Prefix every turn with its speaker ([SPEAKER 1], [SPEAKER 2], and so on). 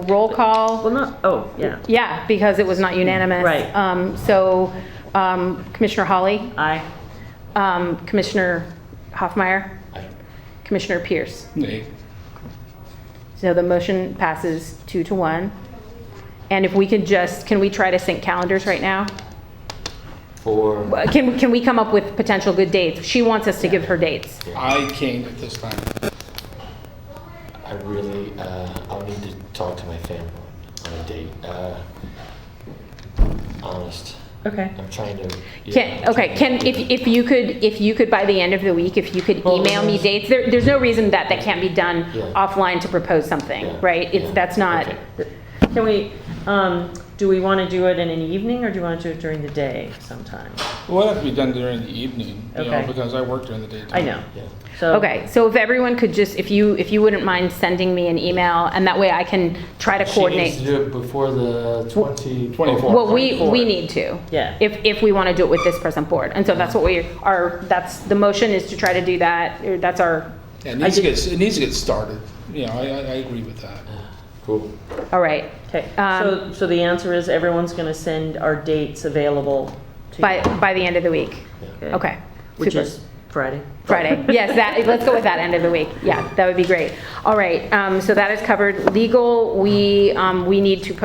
[SPEAKER 1] roll call.
[SPEAKER 2] Well, no, oh, yeah.
[SPEAKER 1] Yeah, because it was not unanimous.
[SPEAKER 2] Right.
[SPEAKER 1] Um, So um, Commissioner Hawley,
[SPEAKER 2] Aye.
[SPEAKER 1] um, Commissioner Hoffmeyer,
[SPEAKER 3] Aye.
[SPEAKER 1] Commissioner Pierce.
[SPEAKER 3] Nay.
[SPEAKER 1] So the motion passes two to one. And if we could just, can we try to sync calendars right now?
[SPEAKER 3] For,
[SPEAKER 1] Uh, Can, can we come up with potential good dates? She wants us to give her dates.
[SPEAKER 4] I can't at this time.
[SPEAKER 3] I really, uh, I'll need to talk to my family on a date. Uh, honest,
[SPEAKER 2] Okay.
[SPEAKER 3] I'm trying to. yeah,
[SPEAKER 1] Can,
[SPEAKER 3] I'm
[SPEAKER 1] okay, can,
[SPEAKER 3] trying to-
[SPEAKER 1] if, if you could, if you could by the end of the week, if you could
[SPEAKER 3] Well,
[SPEAKER 1] email me
[SPEAKER 3] there's-
[SPEAKER 1] dates, there, there's no reason that that can't be done
[SPEAKER 3] Yeah.
[SPEAKER 1] offline to propose
[SPEAKER 3] Yeah,
[SPEAKER 1] something, right? It's,
[SPEAKER 3] yeah,
[SPEAKER 1] that's not,
[SPEAKER 3] okay.
[SPEAKER 2] Can we, um, do we want to do it in an evening or do you want to do it during the day sometime?
[SPEAKER 4] It would have to be done during the evening, you know,
[SPEAKER 2] Okay.
[SPEAKER 4] because I work during the daytime.
[SPEAKER 2] I know.
[SPEAKER 3] Yeah.
[SPEAKER 2] So.
[SPEAKER 1] okay, so if everyone could just, if you, if you wouldn't mind sending me an email, and that way I can try to
[SPEAKER 3] She
[SPEAKER 1] coordinate.
[SPEAKER 3] needs to do it before the 20.
[SPEAKER 4] 24.
[SPEAKER 1] Well, we, we
[SPEAKER 2] Forward.
[SPEAKER 1] need to.
[SPEAKER 2] Yeah.
[SPEAKER 1] If, if we want to do it with this person board, and so that's what we are, that's, the motion is to try to do that, or that's our,
[SPEAKER 4] Yeah, It needs to get, it needs to get started, you know, I, I I agree with that.
[SPEAKER 3] Cool.
[SPEAKER 1] all right.
[SPEAKER 2] Okay, so,
[SPEAKER 1] Um,
[SPEAKER 2] so the answer is everyone's going to send our dates available to you.
[SPEAKER 1] By, by the end of the week,
[SPEAKER 2] Okay.
[SPEAKER 1] okay.
[SPEAKER 2] Which
[SPEAKER 1] super.
[SPEAKER 2] is Friday.
[SPEAKER 1] Friday. Yes, that, let's go with that end of the week. Yeah, that would be great. All right, um, so that is covered. Legal, we, um, we need to